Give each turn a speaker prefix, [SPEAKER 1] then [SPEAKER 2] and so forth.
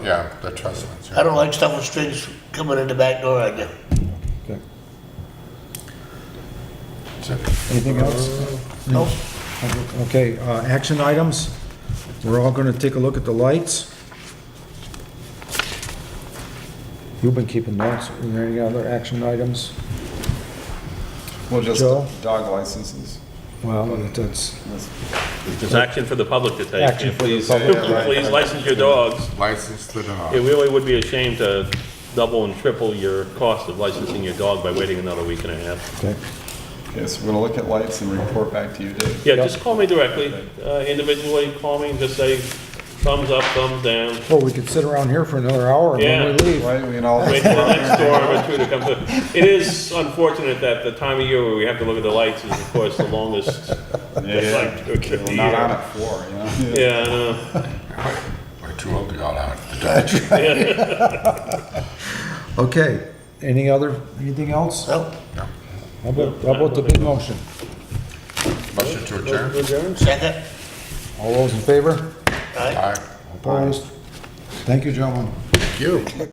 [SPEAKER 1] Yeah, the trust funds. yeah.
[SPEAKER 2] I don't like stuff with strings coming in the back door, I do.
[SPEAKER 3] Okay.
[SPEAKER 1] That's it.
[SPEAKER 3] Anything else?
[SPEAKER 2] Nope.
[SPEAKER 3] Okay, uh, action items. We're all gonna take a look at the lights. You've been keeping notes. Are there any other action items?
[SPEAKER 4] Well, just
[SPEAKER 3] Joe?
[SPEAKER 4] dog licenses.
[SPEAKER 3] Well, that's,
[SPEAKER 4] That's-
[SPEAKER 5] There's action for the public to take.
[SPEAKER 3] Action for the
[SPEAKER 5] Please-
[SPEAKER 3] public.
[SPEAKER 5] Please license your dogs.
[SPEAKER 1] License the dog.
[SPEAKER 5] It really would be a shame to double and triple your cost of licensing your dog by waiting another week and a half.
[SPEAKER 3] okay.
[SPEAKER 4] Okay, so we're gonna look at lights and report back to you, Dave.
[SPEAKER 5] Yeah, just call me directly, uh, individually, call me and just say thumbs up, thumbs down.
[SPEAKER 3] Well, Oh, we could sit around here for another hour and then we
[SPEAKER 5] Yeah.
[SPEAKER 3] leave.
[SPEAKER 4] Right, we can all.
[SPEAKER 5] Wait for the next storm or two to come through. It is unfortunate that the time of year where we have to look at the lights is, of course, the longest.
[SPEAKER 4] Yeah,
[SPEAKER 5] Like,
[SPEAKER 4] yeah. We're not on at four, you know?
[SPEAKER 5] Yeah, I know.
[SPEAKER 1] We're too old to go out to Dodge.
[SPEAKER 3] Okay, any other, anything else? How
[SPEAKER 2] Nope.
[SPEAKER 3] about, how about the big motion?
[SPEAKER 1] Motion to adjourn.
[SPEAKER 2] Second,
[SPEAKER 3] All those in favor?
[SPEAKER 2] all right?
[SPEAKER 1] Aye.
[SPEAKER 3] Opposed? Thank you, gentlemen.
[SPEAKER 1] Thank you.